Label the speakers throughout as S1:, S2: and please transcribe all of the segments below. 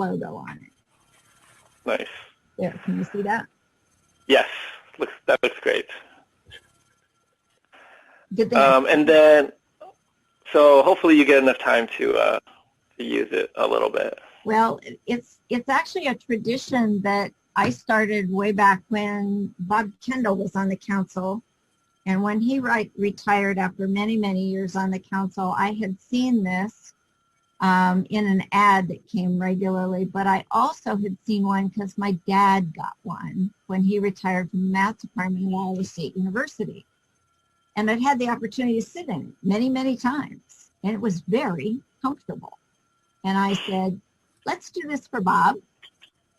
S1: logo on it.
S2: Nice.
S1: There, can you see that?
S2: Yes. Looks that looks great.
S1: Did they?
S2: Um, and then, so hopefully you get enough time to uh, to use it a little bit.
S1: Well, it- it's it's actually a tradition that I started way back when Bob Kendall was on the council. And when he ri- retired after many, many years on the council, I had seen this um, in an ad that came regularly, but I also had seen one because my dad got one when he retired from the math department at Iowa State University. And I'd had the opportunity to sit in it many, many times, and it was very comfortable. And I said, let's do this for Bob.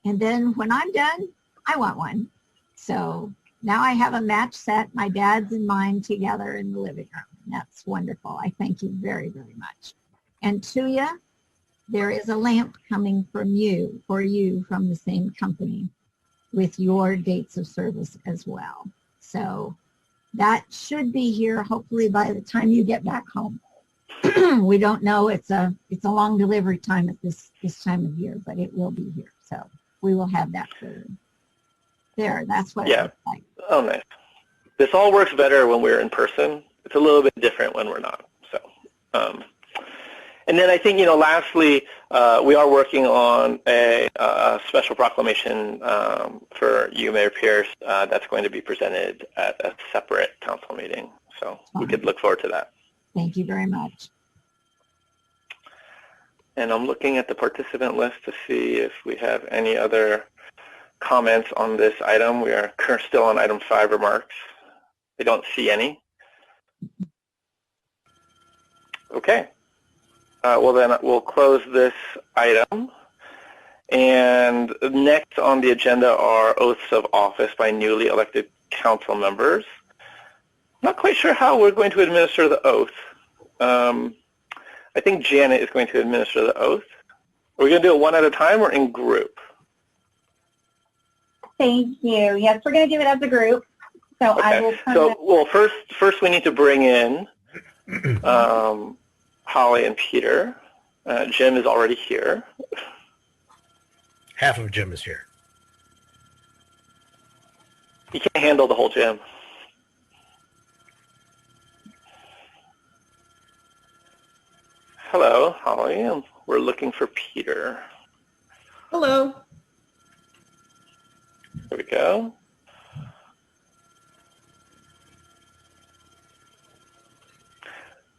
S1: And then when I'm done, I want one. So now I have a match set, my dad's and mine together in the living room. And That's wonderful. I thank you very, very much. And Tuya, there is a lamp coming from you, for you from the same company with your dates of service as well. So that should be here hopefully by the time you get back home. we don't know. It's a it's a long delivery time at this this time of year, but it will be here. So we will have that for you. There, that's what it
S2: Yeah.
S1: looks like.
S2: Oh, nice. This all works better when we're in person. It's a little bit different when we're not. So, um, and then I think you know. Lastly, uh, we are working on a, uh special proclamation um, for you, Mayor Pierce. Uh, that's going to be presented at a separate council meeting. So we could look forward to that.
S1: Thank you very much.
S2: And I'm looking at the participant list to see if we have any other comments on this item. We are cur- still on item five remarks. I don't see any. Okay. Uh, well, then we'll close this item. And next on the agenda are oaths of office by newly elected council members. Not quite sure how we're going to administer the oath. Um, I think Janet is going to administer the oath. Are we going to do it one at a time or in group?
S3: Thank you. Yes, we're going to do it as a group. So I will
S2: Okay.
S3: turn
S2: So,
S3: it-
S2: well, first, first we need to bring in um, Holly and Peter. Uh, Jim is already here.
S4: Half of Jim is here.
S2: He can't handle the whole gym. Hello, Holly. and We're looking for Peter.
S5: Hello.
S2: There we go.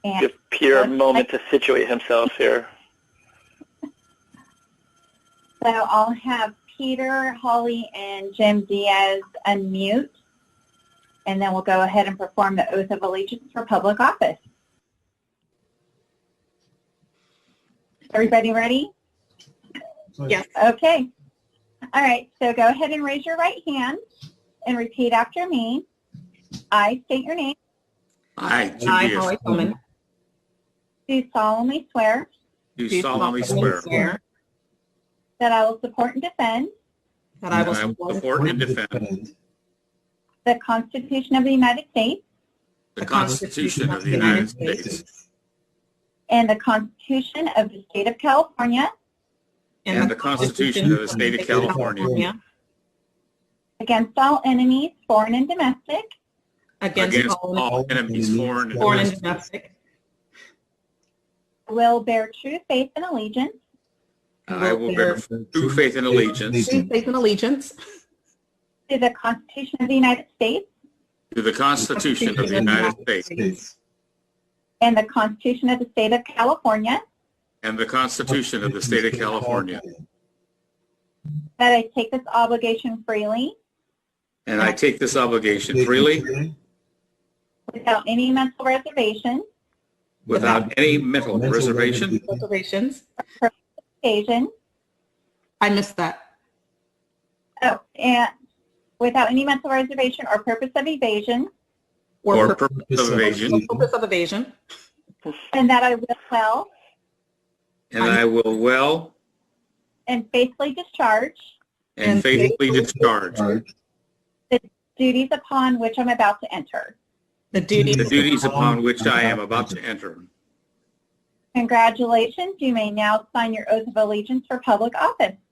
S3: and
S2: Give Peter a moment to situate himself here.
S3: so I'll have Peter, Holly, and Jim Diaz unmute, and then we'll go ahead and perform the oath of allegiance for public office. Everybody ready?
S5: Yes.
S3: Okay. All right, so go ahead and raise your right hand and repeat after me. I state your name,
S6: I, Jim
S5: I,
S6: Pierce,
S5: Holly Coleman.
S3: do solemnly swear
S6: do solemnly swear
S3: that I will support and defend
S5: That I will
S6: that I will
S5: support
S6: support and defend
S3: the Constitution of the United States
S6: the Constitution of the United States
S3: and the Constitution of the State of California
S6: and the Constitution of the State of California
S3: against all enemies, foreign and domestic,
S5: against
S6: against
S5: all
S6: all enemies, foreign and
S5: foreign and
S6: domestic,
S5: domestic.
S3: will bear true faith and allegiance
S6: I will bear true faith and allegiance
S5: True faith and allegiance.
S3: to the Constitution of the United States
S6: to the Constitution of the United States
S3: and the Constitution of the State of California,
S6: and the Constitution of the State of California.
S3: that I take this obligation freely
S6: And I take this obligation freely
S3: without any mental reservation,
S6: without any mental reservation
S5: Reservations.
S3: occasion,
S5: I missed that.
S3: oh, and without any mental reservation or purpose of evasion,
S6: or
S5: purpose
S6: purpose of evasion.
S5: purpose of evasion.
S3: and that I will well
S6: And I will well
S3: and faithfully discharge
S6: and faithfully discharge
S3: duties upon which I'm about to enter.
S5: The duties.
S6: the duties upon which I am about to enter.
S1: Congratulations. You may now sign your oath of allegiance for public office.